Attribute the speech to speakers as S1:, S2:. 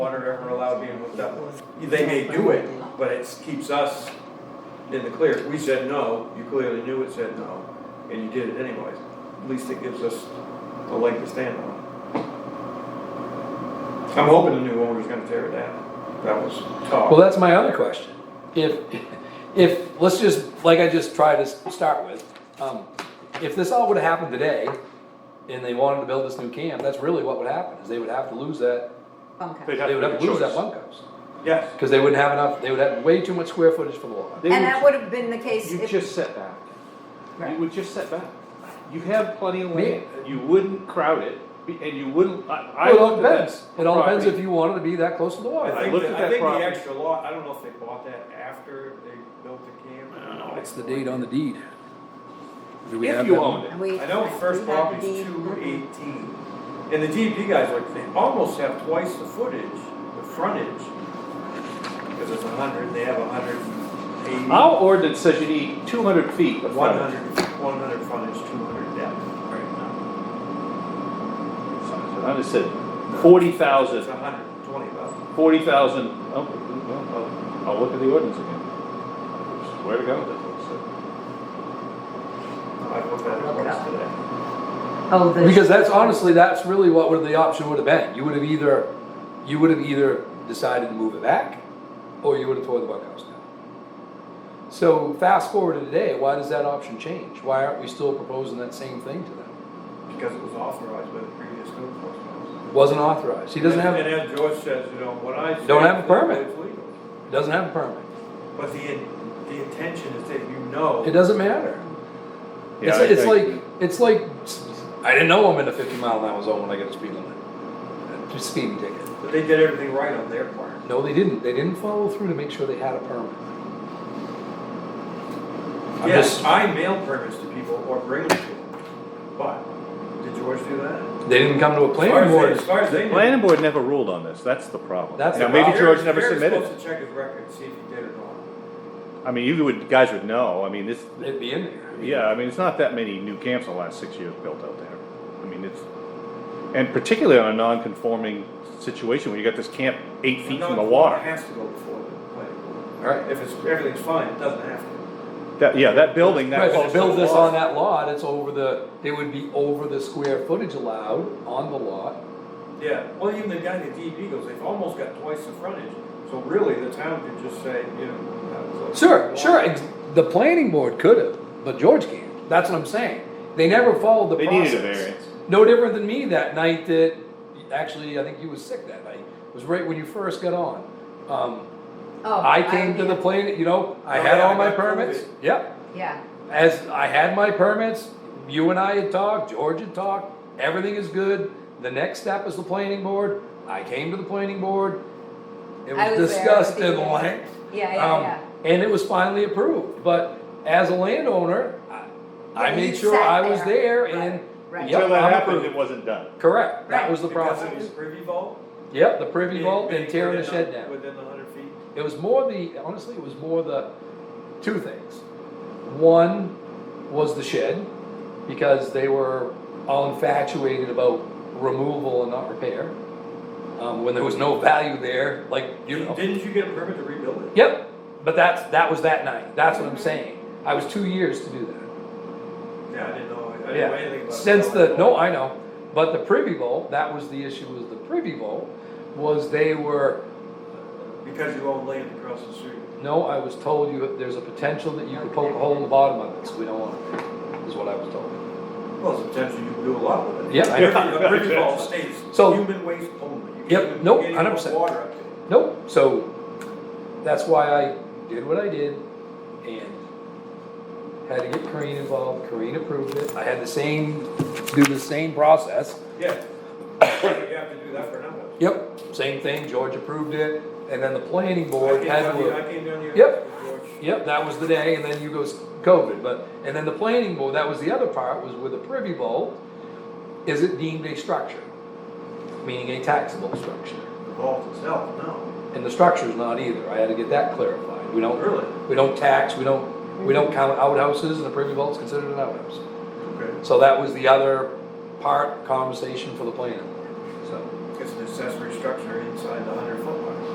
S1: water ever allowed being hooked up. They may do it, but it keeps us in the clear. We said no, you clearly knew it said no, and you did it anyways. At least it gives us a leg to stand on. I'm hoping the new owner's gonna tear it down. That was
S2: Well,
S1: talk.
S2: that's my other question. If, if, let's just, like I just tried to s- start with, um, if this all would've happened today, and they wanted to build this new camp, that's really what would happen, is they would have to lose that,
S3: bunkhouse.
S4: They'd
S2: they would have to
S4: make a
S2: lose that
S4: choice.
S2: bunkhouse.
S1: Yes.
S2: Cause they wouldn't have enough, they would have way too much square footage for the water.
S3: And that would have been the case
S4: You
S3: if,
S4: just set back. You
S3: Right.
S4: would just set back. You have plenty of
S2: Me-
S4: land, you wouldn't crowd it, be- and you wouldn't, I, I
S2: It all
S4: looked at
S2: depends,
S4: this.
S2: it all depends if
S4: property.
S2: you wanted to be that close to the
S1: I
S2: water.
S1: think,
S4: looked
S1: the-
S4: at
S1: I
S4: that
S1: think the
S4: property.
S1: extra lot, I don't know if they bought that after they built the camp. I don't know.
S2: What's the date on the deed? Do we have
S4: If
S2: that?
S4: you owned it.
S3: and we.
S1: I know the first
S3: we had the
S1: property's
S3: deed.
S1: two eighteen, and the DEP guys like, they almost have twice the footage, the frontage. Cause it's a hundred, they have a hundred and eighty,
S4: Our ordinance says you need two hundred feet of
S1: one
S4: frontage.
S1: hundred, one hundred frontage, two hundred depth right now.
S4: I just said forty thousand
S1: It's a hundred and twenty about.
S4: forty thousand, oh, well, I'll, I'll look at the ordinance again. Where to go with it?
S1: I looked at it once today.
S3: Oh, the.
S2: Because that's honestly, that's really what would the option would have been. You would have either, you would have either decided to move it back, or you would have tore the bunkhouse down. So fast forward to today, why does that option change? Why aren't we still proposing that same thing to them?
S1: Because it was authorized by the previous code enforcement.
S2: Wasn't authorized. He doesn't
S1: And
S2: have,
S1: as George says, you know, what I.
S2: Don't
S1: say
S2: have a
S1: is
S2: permit.
S1: It's legal.
S2: doesn't have a permit.
S1: But the, in- the intention is that you
S2: It
S1: know,
S2: doesn't matter. It's,
S4: Yeah, I
S2: it's
S4: think-
S2: like, it's like, I didn't know I'm in a fifty mile an hour zone when I get a speed limit. Just Speeding ticket.
S1: that they did everything right on their part.
S2: No, they didn't. They didn't follow through to make sure they had a permit. I'm
S1: Yes,
S2: just,
S1: I mail permits to people or bring them to them, but did George do that?
S2: they didn't come to a
S1: As far
S2: planning
S1: as they-
S2: board.
S1: As far as they knew.
S5: Planning board never ruled on this, that's the problem.
S2: That's the
S5: Now, maybe
S2: problem.
S5: George never
S1: Gary's
S5: submitted,
S1: supposed to check his record, see if he did or not.
S5: I mean, you would, guys would know, I mean, this,
S2: It'd be in there.
S5: yeah, I mean, it's not that many new camps in the last six years built out there. I mean, it's, and particularly on a non-conforming situation, where you got this camp eight feet from the
S1: It
S5: water.
S1: has to go before the planning board.
S2: Alright.
S1: If it's, everything's fine, it doesn't have to.
S5: That, yeah, that building,
S2: Right,
S5: that
S2: if you
S5: close to
S2: build
S5: the
S2: this
S5: water.
S2: on that lot, it's over the, they would be over the square footage allowed on the lot.
S1: Yeah, well, even the guy at DEP goes, they've almost got twice the frontage, so really, the town could just say, you know. that was a-
S2: Sure, sure, ex- the planning board could have, but George can't. That's what I'm saying. They never followed the
S5: They
S2: process.
S5: needed a variance.
S2: No different than me that night that, actually, I think you was sick that night. It was right when you first got on. Um,
S3: Oh,
S2: I came to the
S3: yeah.
S2: plane, you know, I
S1: Oh,
S2: had
S1: yeah,
S2: all my
S1: that's
S2: permits,
S1: COVID.
S2: yep,
S3: Yeah,
S2: as I had my permits, you and I had talked, George had talked, everything is good. The next step is the planning board, I came to the planning board, it
S3: I
S2: was
S3: was there,
S2: discussed
S3: I was
S2: in
S3: there.
S2: length.
S3: yeah, yeah,
S2: um,
S3: yeah.
S2: And it was finally approved, but as a landowner, I-
S3: Yeah,
S2: I
S3: you
S2: made sure
S3: sat
S2: I was
S3: there.
S2: there and,
S3: Right, right.
S2: yep,
S5: Until that
S2: I'm
S5: happened,
S2: approved.
S5: it wasn't done.
S2: Correct, that
S3: Right.
S2: was the
S1: Because
S2: process.
S1: it was privy vault.
S2: Yep, the privy vault
S1: being
S2: and tearing the
S1: within
S2: shed down.
S1: Within the hundred feet.
S2: It was more the, honestly, it was more the, two things. One was the shed, because they were all infatuated about removal and not repair. Um, when there was no value there, like, you know.
S1: Didn't you get a permit to rebuild it?
S2: Yep, but that's, that was that night, that's what I'm saying. I was two years to do that.
S1: Yeah, I didn't know, I didn't know anything
S2: Yeah,
S1: about. it.
S2: since the, no, I know, but the privy vault, that was the issue, was the privy vault, was they were,
S1: Because you own land across the street.
S2: No, I was told you, there's a potential that you could poke a hole in the bottom of it, so we don't want it, is what I was told.
S1: Well, there's a potential you can do a lot with it.
S2: Yeah, I-
S1: A privy vault states
S2: So-
S1: human waste only. You can't
S2: Yep,
S1: even
S2: nope,
S1: get any
S2: 100%.
S1: Water up there.
S2: Nope, so that's why I did what I did and had to get Corinne involved, Corinne approved it. I had the same, do the same process.
S1: Yeah. You have to do that for another.
S2: Yep, same thing, George approved it, and then the planning
S1: I
S2: board
S1: came
S2: had
S1: down here,
S2: to.
S1: I came down here.
S2: Yep.
S1: with George.
S2: Yep, that was the day, and then you goes COVID, but, and then the planning board, that was the other part, was with a privy vault, is it deemed a structure? Meaning a taxable structure.
S1: The vault itself, no.
S2: And the structure's not either, I had to get that clarified, we don't,
S1: Really?
S2: we don't tax, we don't, we don't count outhouses, and a privy vault's considered an outhouse.
S1: Okay.
S2: So that was the other part, conversation for the planning board, so.
S1: It's an accessory structure inside the hundred